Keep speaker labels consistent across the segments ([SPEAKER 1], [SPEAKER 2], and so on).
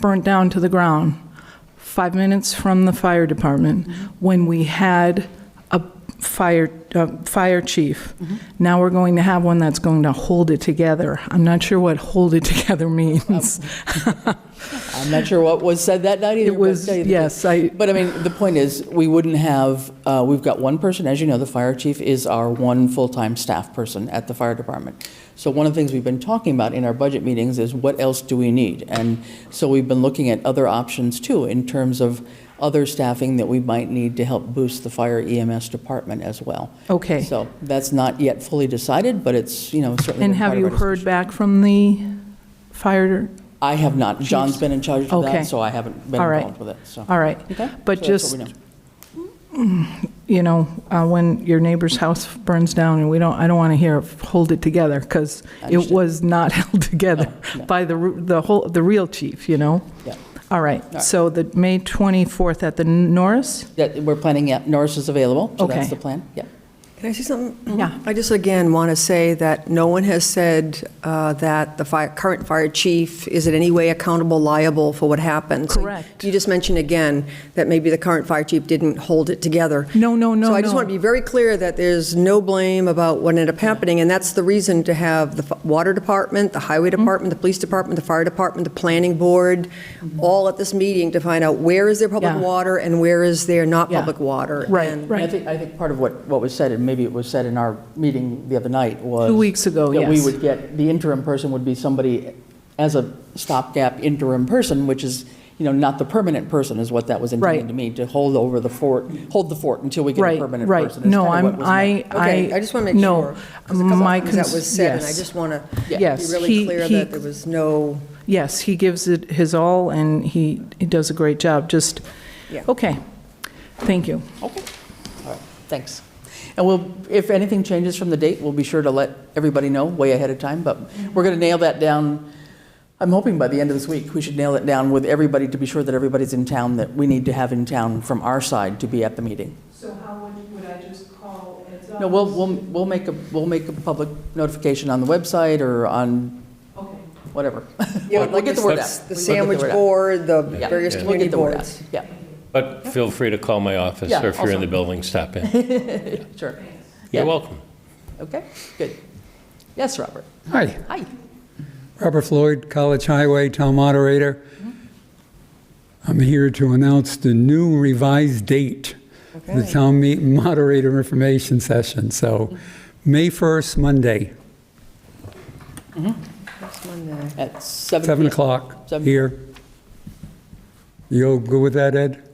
[SPEAKER 1] burnt down to the ground, five minutes from the fire department, when we had a fire, uh, fire chief. Now we're going to have one that's going to hold it together. I'm not sure what hold it together means.
[SPEAKER 2] I'm not sure what was said that night either.
[SPEAKER 1] It
[SPEAKER 2] but I'll
[SPEAKER 1] was-
[SPEAKER 2] tell you the-
[SPEAKER 1] yes, I-
[SPEAKER 2] But I mean, the point is, we wouldn't have, uh, we've got one person, as you know, the fire chief is our one full-time staff person at the fire department. So one of the things we've been talking about in our budget meetings is what else do we need? And so we've been looking at other options too, in terms of other staffing that we might need to help boost the fire EMS department as well.
[SPEAKER 1] Okay.
[SPEAKER 2] So that's not yet fully decided, but it's, you know, certainly.
[SPEAKER 1] And
[SPEAKER 2] been part
[SPEAKER 1] have
[SPEAKER 2] of
[SPEAKER 1] you
[SPEAKER 2] our discussion.
[SPEAKER 1] heard back from the fire?
[SPEAKER 2] I have not. John's been in charge of
[SPEAKER 1] Okay.
[SPEAKER 2] that, so I haven't been
[SPEAKER 1] All right.
[SPEAKER 2] involved with it, so.
[SPEAKER 1] All right.
[SPEAKER 2] Okay,
[SPEAKER 1] But
[SPEAKER 2] so that's
[SPEAKER 1] just,
[SPEAKER 2] what we know.
[SPEAKER 1] you know, uh, when your neighbor's house burns down and we don't, I don't want to hear hold it together because it
[SPEAKER 2] Understood. Oh,
[SPEAKER 1] was not held together
[SPEAKER 2] No, no.
[SPEAKER 1] by the, ru- the whole, the real chief, you know?
[SPEAKER 2] Yeah.
[SPEAKER 1] All right.
[SPEAKER 2] right.
[SPEAKER 1] So the May 24th at the Norris?
[SPEAKER 2] That, we're planning, yeah, Norris is available, so
[SPEAKER 1] Okay.
[SPEAKER 2] that's the plan, yeah.
[SPEAKER 3] Can I say something?
[SPEAKER 1] Yeah.
[SPEAKER 3] I just again want to say that no one has said uh, that the fire, current fire chief is in any way accountable, liable for what happened. So
[SPEAKER 1] Correct.
[SPEAKER 3] You just mentioned again that maybe the current fire chief didn't hold it together.
[SPEAKER 1] No, no, no,
[SPEAKER 3] So I just
[SPEAKER 1] no.
[SPEAKER 3] want to be very clear that there's no blame about what ended up happening, and that's the reason to have the f- water department, the highway
[SPEAKER 1] Mm-hmm.
[SPEAKER 3] department, the police department, the fire department, the planning board, all at this meeting to find out where is their public
[SPEAKER 1] Mm-hmm. Yeah.
[SPEAKER 3] water and where is their not
[SPEAKER 1] Yeah.
[SPEAKER 3] public water.
[SPEAKER 1] Right,
[SPEAKER 3] And-
[SPEAKER 1] right.
[SPEAKER 2] I think, I think part of what, what was said, and maybe it was said in our meeting the other night, was.
[SPEAKER 1] Two weeks ago,
[SPEAKER 2] That we
[SPEAKER 1] yes.
[SPEAKER 2] would get, the interim person would be somebody as a stopgap interim person, which is, you know, not the permanent person, is what that was intended
[SPEAKER 1] Right.
[SPEAKER 2] to mean, to hold over the fort, hold the fort until we get a
[SPEAKER 1] Right,
[SPEAKER 2] permanent person.
[SPEAKER 1] right.
[SPEAKER 2] is
[SPEAKER 1] No,
[SPEAKER 2] kinda what
[SPEAKER 1] I'm,
[SPEAKER 2] was meant.
[SPEAKER 1] I, I.
[SPEAKER 3] Okay, I just want to make
[SPEAKER 1] no,
[SPEAKER 3] sure. 'cause a couple
[SPEAKER 1] my
[SPEAKER 3] things That
[SPEAKER 1] cons-
[SPEAKER 3] was said, and I
[SPEAKER 1] yes.
[SPEAKER 3] just want to be
[SPEAKER 1] Yes,
[SPEAKER 3] really
[SPEAKER 1] he-
[SPEAKER 3] clear
[SPEAKER 1] he-
[SPEAKER 3] that there was no,
[SPEAKER 1] Yes, he gives it his all, and he, he does a great job, just,
[SPEAKER 3] Yeah.
[SPEAKER 1] okay, thank you.
[SPEAKER 2] Okay, all right, thanks. And we'll, if anything changes from the date, we'll be sure to let everybody know way ahead of time, but
[SPEAKER 3] Mm-hmm.
[SPEAKER 2] we're going to nail that down, I'm hoping by the end of this week, we should nail it down with everybody to be sure that everybody's in town, that we need to have in town from our side to be at the meeting.
[SPEAKER 1] So how would, would I just call heads up?
[SPEAKER 2] No, we'll, we'll, we'll make a, we'll make a public notification on the website or on
[SPEAKER 1] Okay.
[SPEAKER 2] whatever.
[SPEAKER 3] Yeah,
[SPEAKER 2] We'll get the word out.
[SPEAKER 3] the
[SPEAKER 2] We'll get
[SPEAKER 3] sandwich
[SPEAKER 2] word out.
[SPEAKER 3] board, the
[SPEAKER 2] Yeah,
[SPEAKER 3] various
[SPEAKER 2] we'll get
[SPEAKER 3] community
[SPEAKER 2] the word out.
[SPEAKER 3] boards.
[SPEAKER 2] Yeah,
[SPEAKER 4] But feel free to call my office,
[SPEAKER 2] Yeah,
[SPEAKER 4] or if you're in
[SPEAKER 2] also.
[SPEAKER 4] the building, stop in.
[SPEAKER 2] sure.
[SPEAKER 4] You're
[SPEAKER 2] Yeah,
[SPEAKER 4] welcome.
[SPEAKER 2] Okay, good. Yes, Robert.
[SPEAKER 5] Hi,
[SPEAKER 2] Hi.
[SPEAKER 5] Robert Floyd, College Highway Town Moderator.
[SPEAKER 2] Mm-hmm.
[SPEAKER 5] I'm here to announce the new revised date for the
[SPEAKER 3] Okay.
[SPEAKER 5] Town meet- Moderator Information Session. So, May 1st, Monday,
[SPEAKER 3] Next Monday.
[SPEAKER 2] At seven.
[SPEAKER 5] 7
[SPEAKER 2] p.m.
[SPEAKER 5] o'clock,
[SPEAKER 2] Seven.
[SPEAKER 5] here. You all good with that, Ed?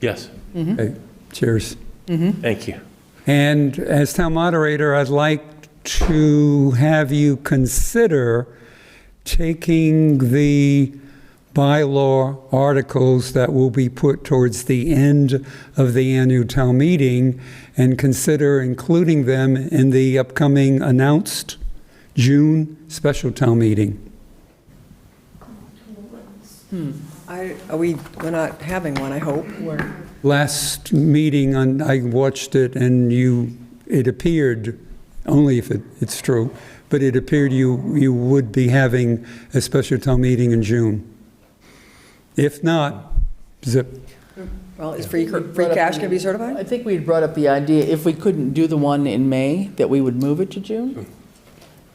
[SPEAKER 4] Yes,
[SPEAKER 2] Mm-hmm.
[SPEAKER 5] Okay, Cheers.
[SPEAKER 4] thank you.
[SPEAKER 5] And as town moderator, I'd like to have you consider taking the bylaw articles that will be put towards the end of the annual town meeting and consider including them in the upcoming announced June special town meeting.
[SPEAKER 3] I- Are we, we're not having one, I hope.
[SPEAKER 5] Last meeting, on- I watched it, and you, it appeared, only if it- it's true, but it appeared you, you would be having a special town meeting in June. If not, zip.
[SPEAKER 3] Well, is free,
[SPEAKER 2] Brought
[SPEAKER 3] free
[SPEAKER 2] up
[SPEAKER 3] cash
[SPEAKER 2] the-
[SPEAKER 3] going to be
[SPEAKER 2] I
[SPEAKER 3] certified?
[SPEAKER 2] think we had brought up the idea, if we couldn't do the one in May, that we would move it to June?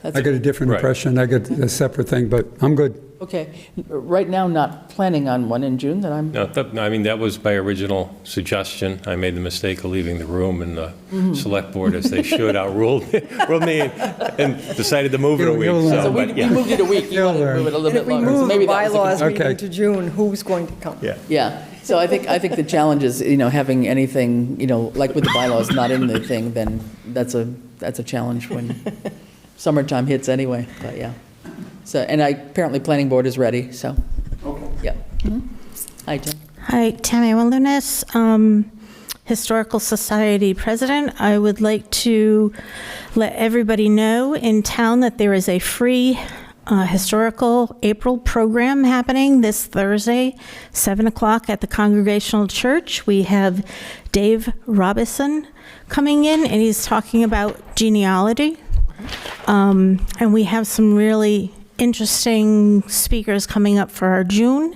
[SPEAKER 5] I got a different
[SPEAKER 4] Right.
[SPEAKER 5] impression, I got a separate thing, but I'm good.
[SPEAKER 2] Okay, right now, not planning on one in June, that I'm,
[SPEAKER 4] No, that- no, I mean, that was my original suggestion. I made the mistake of leaving the room, and the
[SPEAKER 2] Mm-hmm.
[SPEAKER 4] select board, as they should, outruled ruled me and decided to move it a
[SPEAKER 5] You'll-
[SPEAKER 4] week.
[SPEAKER 5] you'll
[SPEAKER 4] So,
[SPEAKER 2] so we
[SPEAKER 4] but
[SPEAKER 2] we
[SPEAKER 4] yeah,
[SPEAKER 2] moved it a week, you
[SPEAKER 5] You'll
[SPEAKER 2] wanted to move
[SPEAKER 5] learn.
[SPEAKER 2] it a
[SPEAKER 3] And
[SPEAKER 2] little
[SPEAKER 3] if
[SPEAKER 2] bit
[SPEAKER 3] we
[SPEAKER 2] longer. so
[SPEAKER 3] move the
[SPEAKER 2] maybe that was a
[SPEAKER 3] bylaws
[SPEAKER 5] Okay.
[SPEAKER 3] meeting to June, who's going to come?
[SPEAKER 4] Yeah.
[SPEAKER 2] Yeah, so I think, I think the challenge is, you know, having anything, you know, like with the bylaws not in the thing, then that's a, that's a challenge when summertime hits anyway, but yeah. So, and I, apparently, planning board is ready, so, yeah. Mhm. Hi, Tim.
[SPEAKER 6] Hi, Tammy Wilderness, um, Historical Society President. I would like to let everybody know in town that there is a free uh, historical April program happening this Thursday, 7 o'clock at the Congregational Church. We have Dave Robison coming in, and he's talking about genealogy. Um, and we have some really interesting speakers coming up for our June